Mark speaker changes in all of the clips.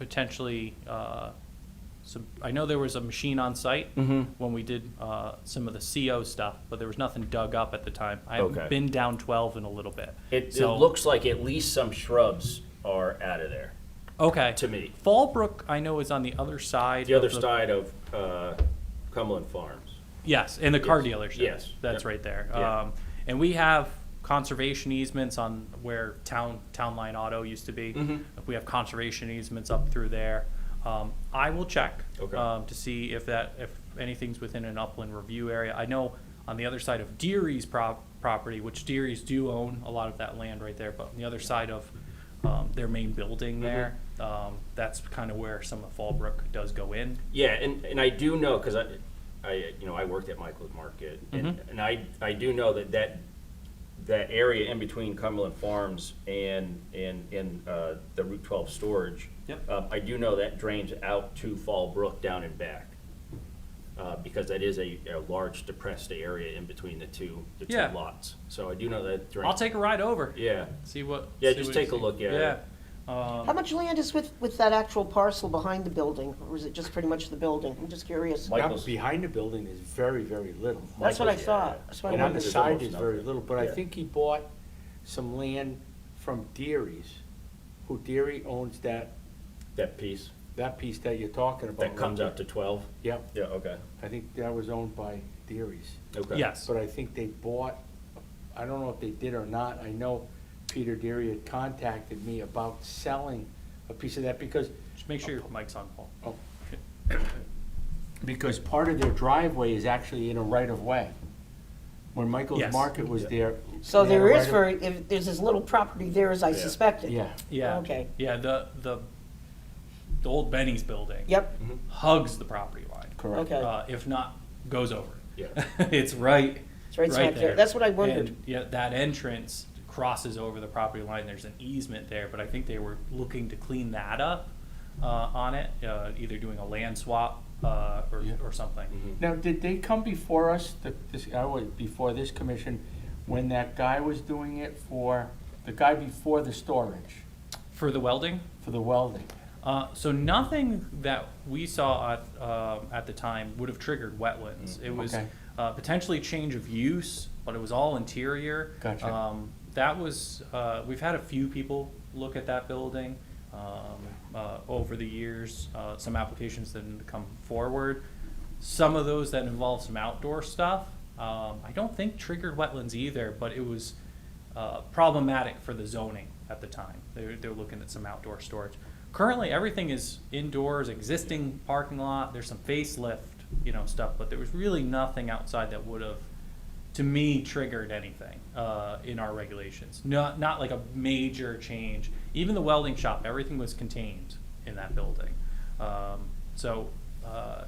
Speaker 1: potentially, uh, some, I know there was a machine on site
Speaker 2: Mm-hmm.
Speaker 3: Mhm.
Speaker 1: when we did uh, some of the CO stuff, but there was nothing dug up at the time. I
Speaker 3: Okay.
Speaker 1: haven't been down 12 in a little bit.
Speaker 2: It, it
Speaker 1: So-
Speaker 2: looks like at least some shrubs are out of there,
Speaker 1: Okay.
Speaker 2: to me.
Speaker 1: Fallbrook, I know, is on the other side.
Speaker 2: The other
Speaker 1: of
Speaker 2: side of uh, Cumberland Farms.
Speaker 1: Yes, and the car
Speaker 2: Yes.
Speaker 1: dealership.
Speaker 2: Yes.
Speaker 1: That's
Speaker 2: Yep.
Speaker 1: right there.
Speaker 2: Yeah.
Speaker 1: Um, and we have conservation easements on where town, town line auto used to be.
Speaker 2: Mm-hmm.
Speaker 1: We have conservation easements up through there. Um, I will check.
Speaker 2: Okay.
Speaker 1: Um, to see if that, if anything's within an upland review area. I know on the other side of Deary's prop, property, which Deary's do own a lot of that land right there, but on the other side of, um, their main building
Speaker 2: Mm-hmm.
Speaker 1: there, um, that's kind of where some of Fallbrook does go in.
Speaker 2: Yeah, and, and I do know, because I, I, you know, I worked at Michael's Market, and,
Speaker 1: Mm-hmm.
Speaker 2: and I, I do know that that, that area in between Cumberland Farms and, and, and uh, the Route 12 storage.
Speaker 1: Yep.
Speaker 2: um, I do know that drains out to Fall Brook down and back, uh, because that is a, a large depressed area in between the two, the two
Speaker 1: Yeah.
Speaker 2: lots. So I do know that drains.
Speaker 1: I'll take a ride over.
Speaker 2: Yeah,
Speaker 1: See what?
Speaker 2: Yeah,
Speaker 1: see
Speaker 2: just
Speaker 1: what you
Speaker 2: take a
Speaker 1: see.
Speaker 2: look at
Speaker 1: Yeah.
Speaker 2: it.
Speaker 4: How much land is with, with that actual parcel behind the building, or is it just pretty much the building? I'm just curious.
Speaker 2: Like-
Speaker 3: Now,
Speaker 2: Michael's-
Speaker 3: behind the building is very, very little.
Speaker 4: That's what I
Speaker 2: Michael's,
Speaker 4: thought.
Speaker 2: yeah.
Speaker 4: That's what I
Speaker 3: And on the
Speaker 4: wondered.
Speaker 2: There's
Speaker 3: side
Speaker 2: almost
Speaker 3: is very
Speaker 2: nothing.
Speaker 3: little, but I
Speaker 2: Yeah.
Speaker 3: think he bought some land from Deary's, who Deary owns that,
Speaker 2: that piece
Speaker 3: that piece that you're talking about.
Speaker 2: that comes
Speaker 3: right
Speaker 2: out to 12.
Speaker 3: there.
Speaker 2: Yeah, okay,
Speaker 3: Yep, I think that was owned by Deary's.
Speaker 2: okay.
Speaker 1: Yes.
Speaker 3: But I think they bought, I don't know if they did or not, I know Peter Deary had contacted me about selling a piece of that because,
Speaker 1: Just make sure your mic's on, Paul.
Speaker 3: oh. Because part of their driveway is actually in a right-of-way. When Michael's
Speaker 1: Yes.
Speaker 3: Market was there.
Speaker 4: So
Speaker 3: they had a
Speaker 4: there is
Speaker 3: right of-
Speaker 4: very, if, there's as little property there as I
Speaker 2: Yeah.
Speaker 4: suspected.
Speaker 3: Yeah,
Speaker 1: Yeah.
Speaker 4: Okay.
Speaker 1: Yeah, the the the old Benny's building.
Speaker 4: Yep,
Speaker 1: Hugs the property line.
Speaker 3: correct.
Speaker 4: Okay.
Speaker 1: Uh, if not, goes over.
Speaker 2: Yeah.
Speaker 1: it's right.
Speaker 4: it's right smack there. That's what I wondered.
Speaker 1: And, yeah, that entrance crosses over the property line. There's an easement there, but I think they were looking to clean that up uh, on it, uh, either doing a land swap uh, or,
Speaker 3: Yeah.
Speaker 1: or something.
Speaker 2: Mm-hmm.
Speaker 3: Now, did they come before us, the- this, I was, before this commission, when that guy was doing it for, the guy before the storage,
Speaker 1: For the welding,
Speaker 3: for the welding?
Speaker 1: Uh, so nothing that we saw at, um at the time would have triggered wetlands. It was
Speaker 3: Okay.
Speaker 1: uh, potentially change of use, but it was all interior.
Speaker 3: Gotcha.
Speaker 1: Um, that was uh, we've had a few people look at that building um, uh, over the years. Uh, some applications that have come forward. Some of those that involve some outdoor stuff. Um, I don't think triggered wetlands either, but it was uh, problematic for the zoning at the time. They're, they're looking at some outdoor storage. Currently, everything is indoors, existing parking lot, there's some facelift, you know, stuff, but there was really nothing outside that would have, to me, triggered anything, uh, in our regulations. Not, not like a major change. Even the welding shop, everything was contained in that building. Um, so, uh,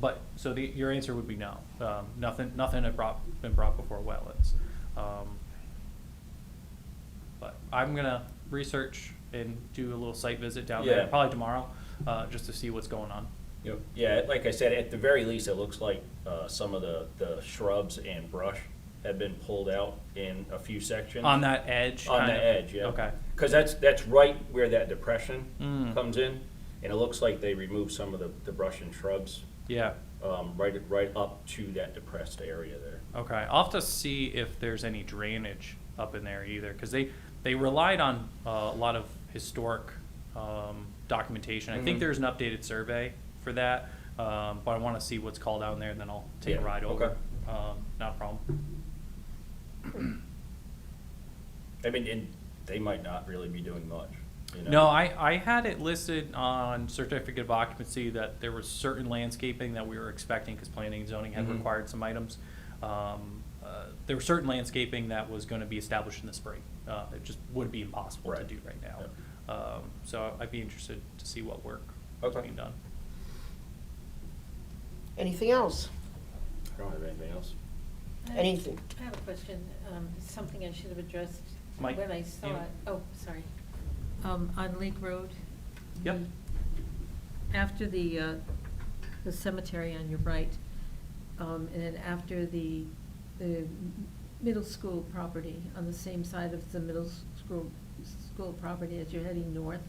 Speaker 1: but, so the, your answer would be no. Um, nothing, nothing had brought, been brought before wetlands. Um, But I'm gonna research and do a little site visit down there,
Speaker 2: Yeah.
Speaker 1: probably tomorrow, uh, just to see what's going on.
Speaker 2: Yep. Yeah, like I said, at the very least, it looks like uh, some of the, the shrubs and brush have been pulled out in a few sections.
Speaker 1: On that edge?
Speaker 2: On
Speaker 1: kind
Speaker 2: the
Speaker 1: of?
Speaker 2: edge, yeah.
Speaker 1: Okay, Mm.
Speaker 2: Because that's, that's right where that depression comes in, and it looks like they removed some of the, the brush and shrubs
Speaker 1: yeah,
Speaker 2: um, right, right up to that depressed area there.
Speaker 1: okay. I'll have to see if there's any drainage up in there either, because they, they relied on uh, a lot of historic um, documentation.
Speaker 2: Mm-hmm.
Speaker 1: I think there's an updated survey for that, um, but I want to see what's called out in there, and then I'll take a
Speaker 2: Yeah,
Speaker 1: ride
Speaker 2: okay.
Speaker 1: over. Um, Not a problem.
Speaker 2: I mean, and they might not really be doing much, you know?
Speaker 1: No, I, I had it listed on certificate of occupancy that there was certain landscaping that we were expecting, because planning and zoning
Speaker 2: Mm-hmm.
Speaker 1: had required some items. Um, uh, There was certain landscaping that was gonna be established in the spring, uh, it just would be impossible to
Speaker 2: Right.
Speaker 1: do right now. Um, So I'd be interested to see what work is
Speaker 2: Okay.
Speaker 1: being done.
Speaker 4: Anything else?
Speaker 2: I don't have anything else.
Speaker 5: I-
Speaker 4: Anything?
Speaker 5: I have a question, um, something I should have addressed
Speaker 1: Mike,
Speaker 5: when I
Speaker 1: you-
Speaker 5: saw it. Oh, sorry. Um, on Lake Road.
Speaker 1: Yep.
Speaker 5: the- After the, uh, the cemetery on your right, um, and then after the, the m- middle school property, on the same side of the middle s- school, school property as you're heading north,